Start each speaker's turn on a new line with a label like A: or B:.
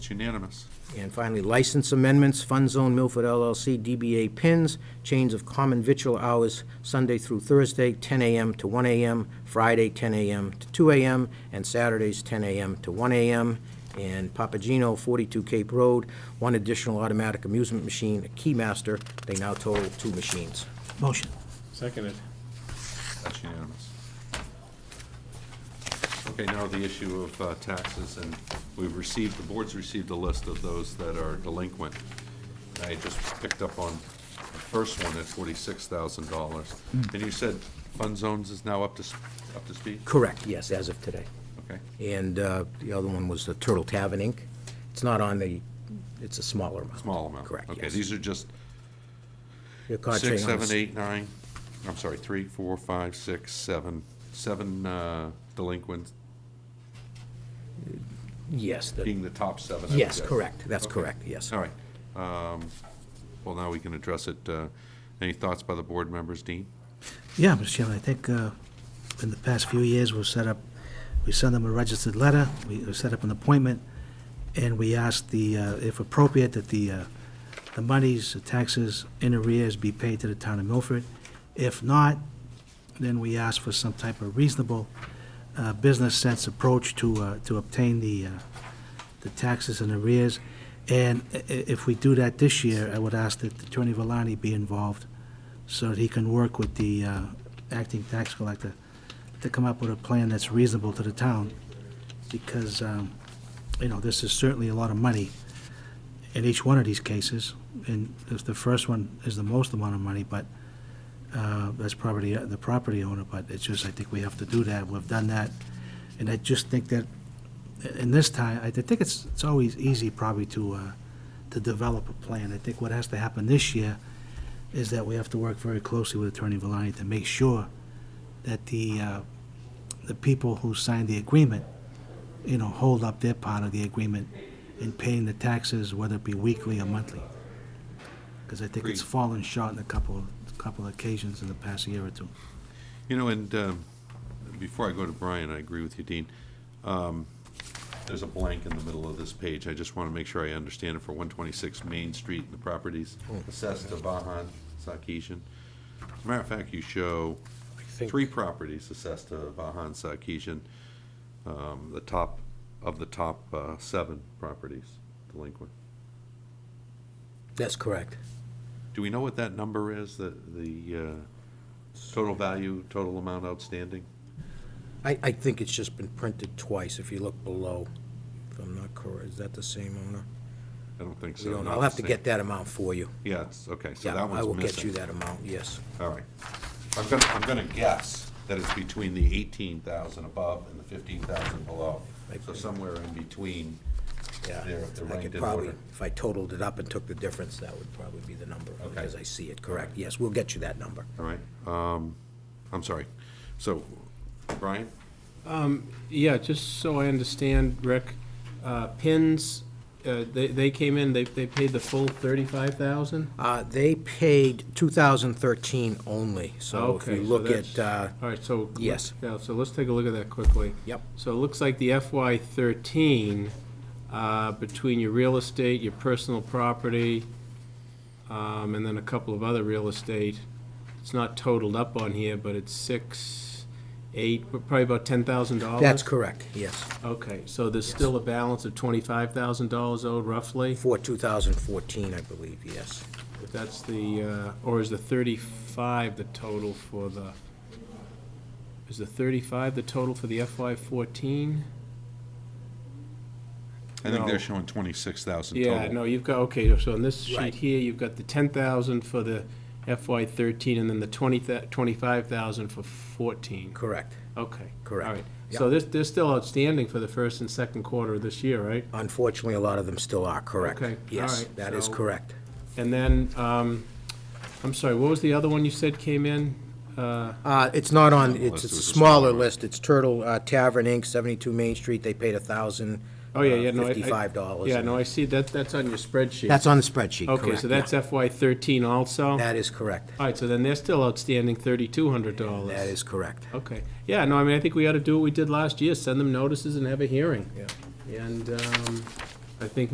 A: unanimous.
B: And finally, license amendments, Fun Zone Milford LLC, DBA Pins, Chains of Common Victual Hours, Sunday through Thursday, 10 a.m. to 1 a.m., Friday, 10 a.m. to 2 a.m., and Saturdays, 10 a.m. to 1 a.m. And Papagino, 42 Cape Road, one additional automatic amusement machine, a Keymaster. They now total two machines.
C: Motion.
D: Seconded.
A: That's unanimous. Okay, now the issue of uh, taxes, and we've received, the board's received a list of those that are delinquent. I just picked up on the first one at forty-six thousand dollars.
B: Hmm.
A: And you said Fun Zones is now up to, s- up to speed?
B: Correct, yes, as of today.
A: Okay,
B: And uh, the other one was the Turtle Tavern Inc. It's not on the, it's a smaller amount.
A: small amount.
B: Correct, yes.
A: Okay, these are just
B: They're caught
A: six,
B: trading on
A: seven,
B: the s-
A: eight, nine, I'm sorry, three, four, five, six, seven, seven uh, delinquents,
B: Yes, the-
A: being the top seven. I would
B: yes,
A: guess.
B: correct, that's
A: Okay.
B: correct, yes.
A: All right. Um, Well, now we can address it. Uh, Any thoughts by the board members, Dean?
C: Yeah, Mr. Chairman, I think uh, in the past few years, we've set up, we send them a registered letter, we we set up an appointment, and we ask the, uh, if appropriate, that the, uh, the monies, the taxes in arrears be paid to the town of Milford. If not, then we ask for some type of reasonable uh, business sense approach to, uh, to obtain the, uh, the taxes in arrears. And i- i- if we do that this year, I would ask that Attorney Valani be involved so that he can work with the uh, acting tax collector to come up with a plan that's reasonable to the town, because, um, you know, this is certainly a lot of money in each one of these cases, and if the first one is the most amount of money, but uh, that's probably the property owner, but it's just, I think we have to do that, we've done that, and I just think that, in this time, I think it's, it's always easy probably to, uh, to develop a plan. I think what has to happen this year is that we have to work very closely with Attorney Valani to make sure that the, uh, the people who signed the agreement, you know, hold up their part of the agreement in paying the taxes, whether it be weekly or monthly. Because I think it's
A: Agreed.
C: fallen short in a couple, couple occasions in the past year or two.
A: You know, and um, before I go to Brian, I agree with you, Dean. Um, There's a blank in the middle of this page. I just want to make sure I understand it for 126 Main Street and the properties assessed to Vahan Sakishian. As a matter of fact, you show three properties assessed to Vahan Sakishian, um, the top, of the top uh, seven properties delinquent.
B: That's correct.
A: Do we know what that number is, the, the uh, total value, total amount outstanding?
B: I, I think it's just been printed twice, if you look below, if I'm not correct, is that the same owner?
A: I don't think so.
B: We don't,
A: not
B: I'll
A: the
B: have to
A: same.
B: get that amount for you.
A: Yeah, it's, okay, so
B: Yeah,
A: that
B: I will
A: one's
B: get you
A: missing.
B: that amount, yes.
A: All right. I'm gonna, I'm gonna guess that it's between the eighteen thousand above and the fifteen thousand below. So somewhere in between,
B: Yeah,
A: they're, they're
B: I could
A: ranked in
B: probably,
A: order.
B: if I totaled it up and took the difference, that would probably be the number,
A: Okay.
B: as I see it, correct. Yes, we'll get you that number.
A: All right, um, I'm sorry. So, Brian,
D: Yeah, just so I understand, Rick, uh, pins, uh, they, they came in, they, they paid the full thirty-five thousand?
B: Uh, they paid 2013 only, so if
D: Okay,
B: you look at,
D: that's-
B: uh,
D: All right, so. look-
B: yes.
D: Yeah, so let's take a look at that quickly.
B: Yep.
D: So it looks like the FY thirteen, uh, between your real estate, your personal property, um, and then a couple of other real estate, it's not totaled up on here, but it's six, eight, probably about ten thousand dollars?
B: that's correct, yes,
D: Okay, so there's still a balance of twenty-five thousand dollars owed roughly?
B: for 2014, I believe, yes.
D: If that's the, uh, or is the thirty-five the total for the, is the thirty-five the total for the FY fourteen?
A: I think
D: No.
A: they're showing twenty-six thousand total.
D: Yeah, no, you've got, okay, so on this
B: Right.
D: sheet here, you've got the ten thousand for the FY thirteen, and then the twenty, twenty-five thousand for fourteen.
B: Correct.
D: Okay.
B: Correct.
D: All right,
B: Yep.
D: so this, they're still outstanding for the first and second quarter of this year, right?
B: Unfortunately, a lot of them still are, correct.
D: Okay, all
B: Yes,
D: right,
B: that is
D: so-
B: correct.
D: And then, um, I'm sorry, what was the other one you said came in? Uh,
B: Uh, It's not on,
A: Unless
B: it's it's
A: it
B: a
A: was a
B: smaller
A: smaller-
B: list, it's Turtle uh, Tavern Inc., 72 Main Street, they paid
D: Oh, yeah, yeah, no. I- I-
B: $1,055.
D: Yeah, no, I see, that, that's on your spreadsheet.
B: That's on the spreadsheet, correct.
D: Okay, so
B: yeah.
D: that's FY thirteen also? All
B: That is correct,
D: right, so then they're still outstanding thirty-two hundred dollars.
B: that is correct.
D: Okay, yeah, no, I mean, I think we ought to do what we did last year, send them notices and have a hearing. Yeah. And, um, I think